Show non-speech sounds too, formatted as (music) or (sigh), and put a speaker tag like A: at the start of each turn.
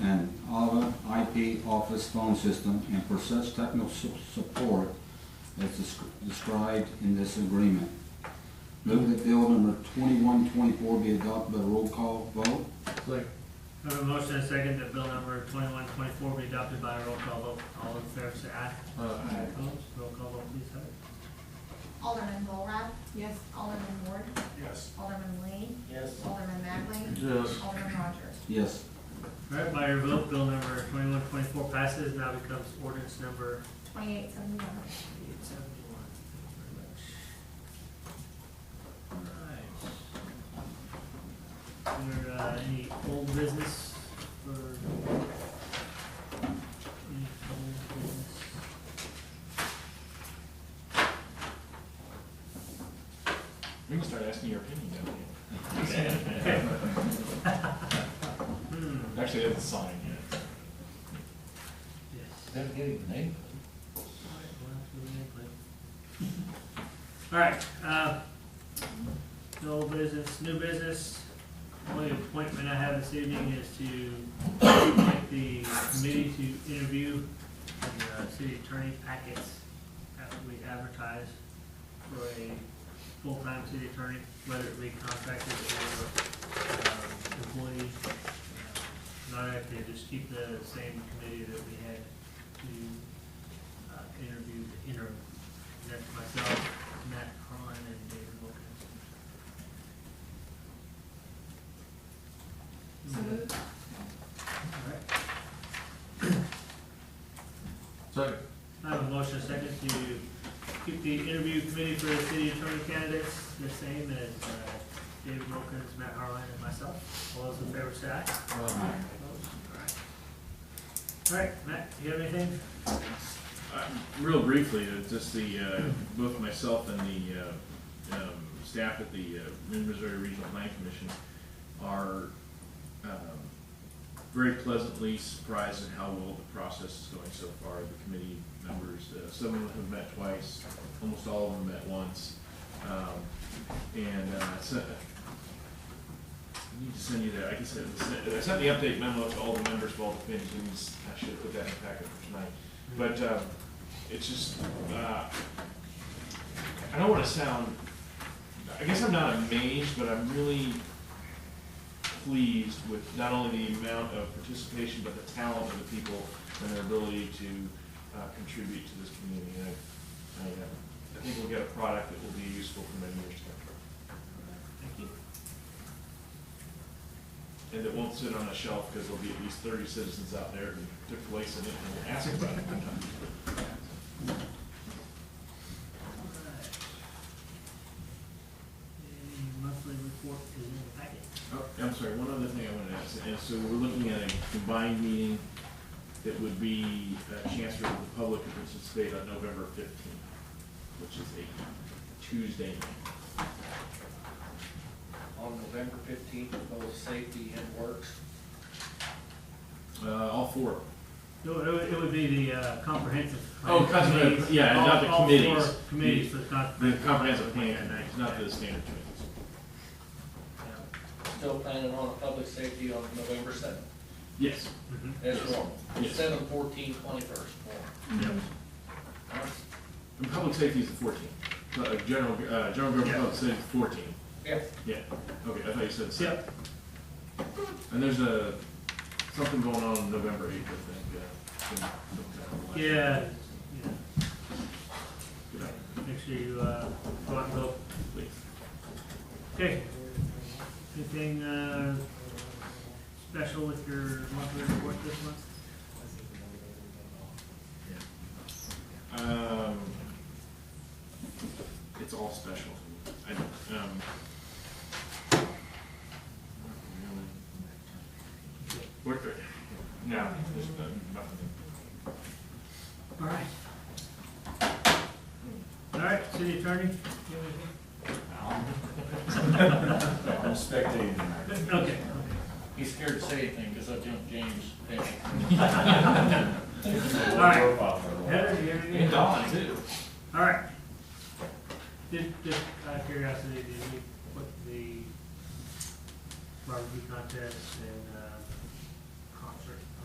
A: IP office phone system and for such technical su- support as desc- described in this agreement. Move that bill number twenty-one twenty-four be adopted by roll call vote.
B: Second.
C: I have a motion and a second that bill number twenty-one twenty-four be adopted by a roll call vote. All in favor say aye.
D: uh,
B: Aye.
C: Opposed? Roll call vote, please, Heather.
E: Alderman Borah,
F: Yes.
E: Alderman Ward,
B: Yes.
E: Alderman Lee,
B: Yes.
E: Alderman Magley,
D: uh,
B: Yes.
E: Alderman Rogers.
A: Yes.
C: All right, by your vote, bill number twenty-one twenty-four passes, now becomes ordinance number
E: Twenty-eight seventy-one.
C: eight seventy-one. All right. There, uh, any old business for? Any old business?
D: We can start asking your opinion down
C: Hmm,
D: here. (laughs) Actually, that's a sign, yeah.
C: yes.
B: Better get his name.
C: All right, uh, no old business, new business, only appointment I have this evening is to appoint the committee to interview the uh, city attorney packets after we advertise for a full-time city attorney, whether it be contracted or, um, employee. Uh, Not active, just keep the same committee that we had to uh, interviewed, inter, that's myself, Matt Cron, and David Wilkins.
F: So moved.
C: Alright,
B: Second.
C: I have a motion and a second to keep the interview committee for the city attorney candidates the same as, uh, David Wilkins, Matt Harlan, and myself. All those in favor say aye.
D: Um,
B: Aye.
C: Opposed? Alright, Matt, do you have anything?
D: Uh, Real briefly, uh, just the, uh, both myself and the uh, um, staff at the uh, Mid-Missouri Regional Plan Commission are um, very pleasantly surprised at how well the process is going so far. The committee members, uh, some of them have met twice, almost all of them met once. Um, And uh, I sent- I need to send you that, I can send, I sent the update memo to all the members of all the committees. I should have put that in the packet for tonight. But uh, it's just, uh, I don't want to sound, I guess I'm not amazed, but I'm really pleased with not only the amount of participation, but the talent of the people and their ability to uh, contribute to this community. And I, I, uh, I think we'll get a product that will be useful for many years to come.
C: Thank you.
D: And that won't sit on a shelf because there'll be at least thirty citizens out there who took place in it and will ask about it.
C: Alright. The monthly report is in the packet.
D: Oh, I'm sorry, one other thing I wanted to ask, and so we're looking at a combined meeting that would be a chance for the public to participate on November fifteenth, which is a Tuesday night.
G: on November fifteenth, both safety and works.
D: Uh, all four.
C: It would, it would- it would be the uh, comprehensive.
D: Oh, comprehensive,
C: committees.
D: yeah,
C: All-
D: not the
C: all
D: committees.
C: four Committees for the
D: The
C: comprehensive.
D: comprehensive plan, it's not the standard committees.
G: Still planning on a public safety on November seventh,
D: Yes.
C: Mhm.
G: as
D: Yes.
G: normal.
D: Yes.
G: Seven, fourteen, twenty-first.
D: And public safety is the fourteenth, uh, general, uh, general government
C: Yeah.
D: public safety is fourteen.
G: Yeah,
D: Yeah, okay, I thought you said seven.
C: Yep,
D: And there's a, something going on November eighth, I think, uh, some- some kind of-
C: yeah, yeah,
D: Good night.
C: make sure you, uh, go out and vote.
D: Please.
C: Okay. Anything, uh, special with your monthly report this month?
D: Um, it's all special. I, um. What, no, there's nothing.
C: All right. All right, city attorney? you have anything?
H: I'm spectating.
C: Okay,
G: he's scared to say anything because I jumped James. down.
C: (laughs) all right. Heather, do you have anything?
D: Dawn, too.
C: All right. Did, just out of curiosity, did we put the barbecue contest and uh,